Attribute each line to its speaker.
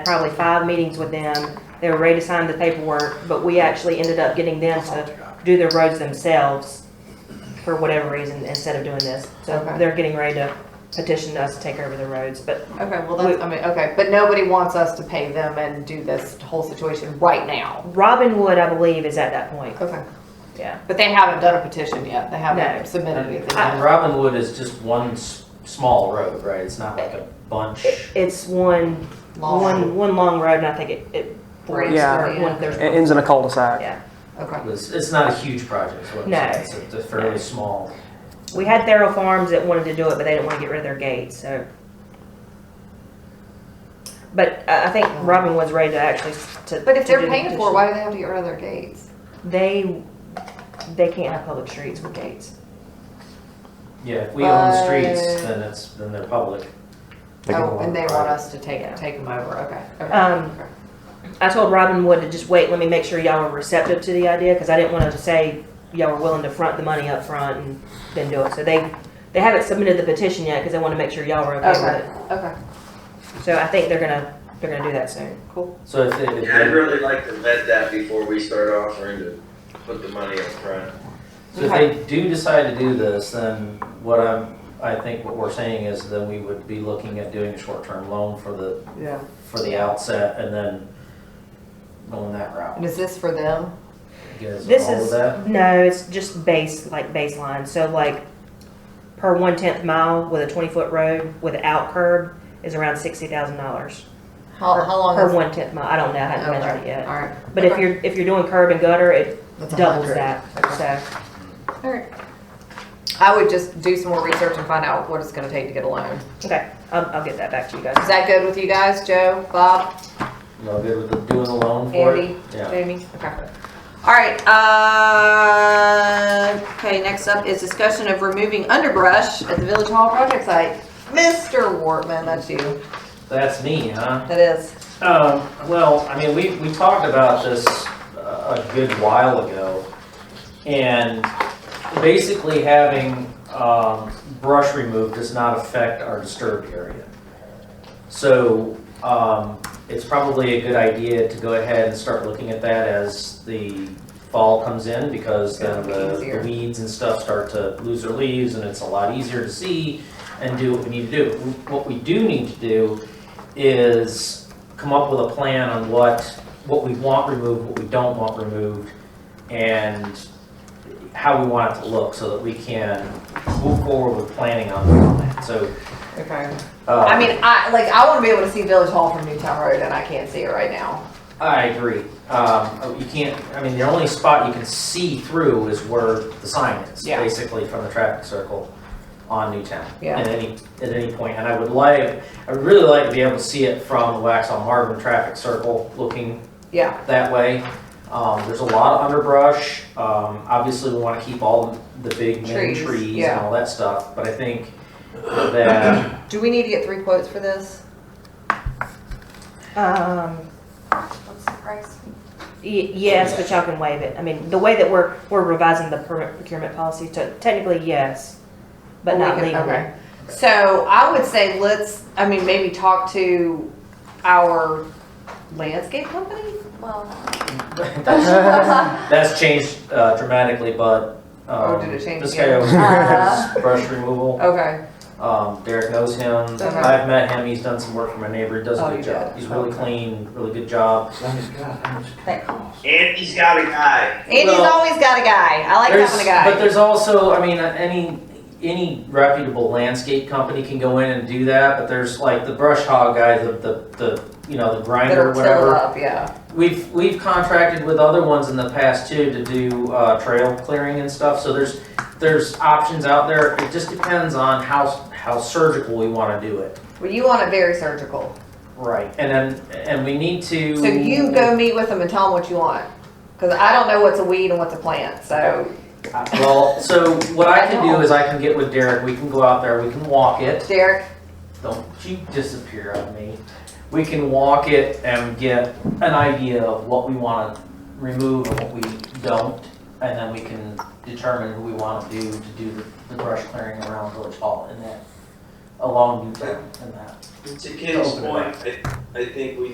Speaker 1: probably five meetings with them. They were ready to sign the paperwork, but we actually ended up getting them to do their roads themselves for whatever reason, instead of doing this. So
Speaker 2: Okay.
Speaker 1: they're getting ready to petition us to take over the roads, but
Speaker 2: Okay, well, that's, I mean, okay, but nobody wants us to pay them and do this whole situation right now.
Speaker 1: Robin Wood, I believe, is at that point,
Speaker 2: Okay.
Speaker 1: yeah.
Speaker 2: But they haven't done a petition yet. They
Speaker 1: No.
Speaker 2: haven't submitted anything. yet.
Speaker 3: And Robinwood is just one s- small road, right? It's not like a bunch.
Speaker 1: It- It's one,
Speaker 2: Long.
Speaker 1: one, one long road, and I think it, it breaks,
Speaker 4: Yeah.
Speaker 1: or one, there's.
Speaker 4: It ends in a cul-de-sac.
Speaker 1: Yeah,
Speaker 2: Okay.
Speaker 3: It's, it's not a huge project, is what I'm
Speaker 1: No.
Speaker 3: saying. It's a- It's a fairly small.
Speaker 1: we had Thero Farms that wanted to do it, but they didn't wanna get rid of their gate, so. But I, I think Robin was ready to actually, s- to.
Speaker 2: Oh. But if
Speaker 1: to do
Speaker 2: they're
Speaker 1: the
Speaker 2: paying for it,
Speaker 1: petition.
Speaker 2: why do they have to get rid of their gates?
Speaker 1: They, they can't have public streets with gates.
Speaker 3: Yeah, if we own the streets,
Speaker 1: Uh,
Speaker 2: But-
Speaker 3: then it's, then they're public.
Speaker 2: Oh, and they want us to take,
Speaker 1: Yeah.
Speaker 2: take them over. Okay. okay,
Speaker 1: Um,
Speaker 2: okay.
Speaker 1: I told Robin Wood to just wait, let me make sure y'all were receptive to the idea, cause I didn't wanna say y'all were willing to front the money up front and then do it, so they, they haven't submitted the petition yet, cause they wanna make sure y'all were okay with it.
Speaker 2: Okay, okay,
Speaker 1: So I think they're gonna, they're gonna do that soon.
Speaker 2: cool.
Speaker 3: So if they, if
Speaker 5: Yeah, I'd
Speaker 3: they,
Speaker 5: really like to vet that before we start offering to put the money up front.
Speaker 3: so if they do decide to do this, then what I'm, I think what we're saying is then we would be looking at doing a short-term loan for the,
Speaker 2: Yeah.
Speaker 3: for the outset and then going that route.
Speaker 2: And is this for them?
Speaker 3: You guys
Speaker 1: This
Speaker 3: all with
Speaker 1: is,
Speaker 3: that?
Speaker 1: no, it's just base, like baseline, so like per one tenth mile with a twenty foot road without curb is around sixty thousand dollars.
Speaker 2: How, how long
Speaker 1: Per
Speaker 2: is?
Speaker 1: one tenth mile, I don't know, I haven't
Speaker 2: Okay,
Speaker 1: measured it yet.
Speaker 2: All right.
Speaker 1: But if
Speaker 2: Okay.
Speaker 1: you're, if you're doing curb and gutter, it
Speaker 2: That's a
Speaker 1: doubles
Speaker 2: hundred.
Speaker 1: that, so.
Speaker 2: Alright. I would just do some more research and find out what it's gonna take to get a loan.
Speaker 1: Okay, I'll, um, I'll get that back to you
Speaker 2: Is
Speaker 1: guys.
Speaker 2: that good with you guys, Joe, Bob,
Speaker 3: Y'all good with the, doing the loan for it?
Speaker 2: Andy,
Speaker 3: Yeah.
Speaker 2: Jamie? Okay. Alright, uh, okay, next up is discussion of removing underbrush at the Village Hall project site. Mr. Wortman, that's you.
Speaker 3: That's me, huh?
Speaker 2: That is.
Speaker 3: Um, well, I mean, we, we talked about this uh, a good while ago, and basically having, um, brush removed does not affect our disturbed area. So, um, it's probably a good idea to go ahead and start looking at that as the fall comes in, because then the
Speaker 2: Easier.
Speaker 3: the weeds and stuff start to lose their leaves, and it's a lot easier to see and do what we need to do. What we do need to do is come up with a plan on what, what we want removed, what we don't want removed, and how we want it to look so that we can move forward with planning on on that. So,
Speaker 2: Okay.
Speaker 3: uh,
Speaker 2: I mean, I, like, I wanna be able to see Village Hall from Newtown Road and I can't see it right now.
Speaker 3: I agree. Um, you can't, I mean, the only spot you can see through is where the sign is,
Speaker 2: Yeah.
Speaker 3: basically from the traffic circle on Newtown.
Speaker 2: Yeah.
Speaker 3: At any, at any point, and I would like, I'd really like to be able to see it from the Waxaw Marvin traffic circle looking
Speaker 2: Yeah,
Speaker 3: that way. Um, there's a lot of underbrush. Um, obviously, we want to keep all the big main
Speaker 2: Trees,
Speaker 3: trees and
Speaker 2: yeah.
Speaker 3: all that stuff, but I think that,
Speaker 2: do we need to get three quotes for this?
Speaker 1: Um,
Speaker 2: What's the price?
Speaker 1: y- yes, but y'all can waive it. I mean, the way that we're, we're revising the per- procurement policy, so technically, yes, but
Speaker 2: Well, we
Speaker 1: not
Speaker 2: can-
Speaker 1: legally.
Speaker 2: okay. So I would say let's, I mean, maybe talk to our landscape company? Well.
Speaker 3: that's, that's changed uh, dramatically, but,
Speaker 2: Oh,
Speaker 3: um,
Speaker 2: did it change
Speaker 3: this
Speaker 2: again?
Speaker 3: guy over here
Speaker 2: Uh.
Speaker 3: does brush removal.
Speaker 2: Okay,
Speaker 3: Um, Derek knows him.
Speaker 2: Okay.
Speaker 3: I've met him. He's done some work for my neighbor. He does
Speaker 2: Uh-huh. Oh,
Speaker 3: a
Speaker 2: you
Speaker 3: good job.
Speaker 2: did?
Speaker 3: He's really
Speaker 2: Okay.
Speaker 3: clean, really good job.
Speaker 5: Andy's got a guy.
Speaker 2: Andy's
Speaker 3: Well,
Speaker 2: always got a guy, I like
Speaker 3: There's-
Speaker 2: having a guy.
Speaker 3: But there's also, I mean, uh, any, any reputable landscape company can go in and do that, but there's like the brush hog guy, the, the, the, you know, the
Speaker 2: That
Speaker 3: grinder,
Speaker 2: are tilled
Speaker 3: whatever.
Speaker 2: up, yeah,
Speaker 3: We've, we've contracted with other ones in the past too to do, uh, trail clearing and stuff, so there's, there's options out there. It just depends on how, how surgical we wanna do it.
Speaker 2: well, you want it very surgical,
Speaker 3: Right. And then, and we need to.
Speaker 2: so you go meet with them and tell them what you want. Cause I don't know what's a weed and what's a plant, so
Speaker 3: Uh, Well, so what I can
Speaker 2: I know.
Speaker 3: do is I can get with Derek, we can go out there, we can walk it.
Speaker 2: Derek,
Speaker 3: Don't you disappear on me. We can walk it and get an idea of what we want to remove and what we don't, and then we can determine who we want to do to do the- the brush clearing around Village Hall and that, along Newtown and that.
Speaker 5: To Ken's point, I, I think we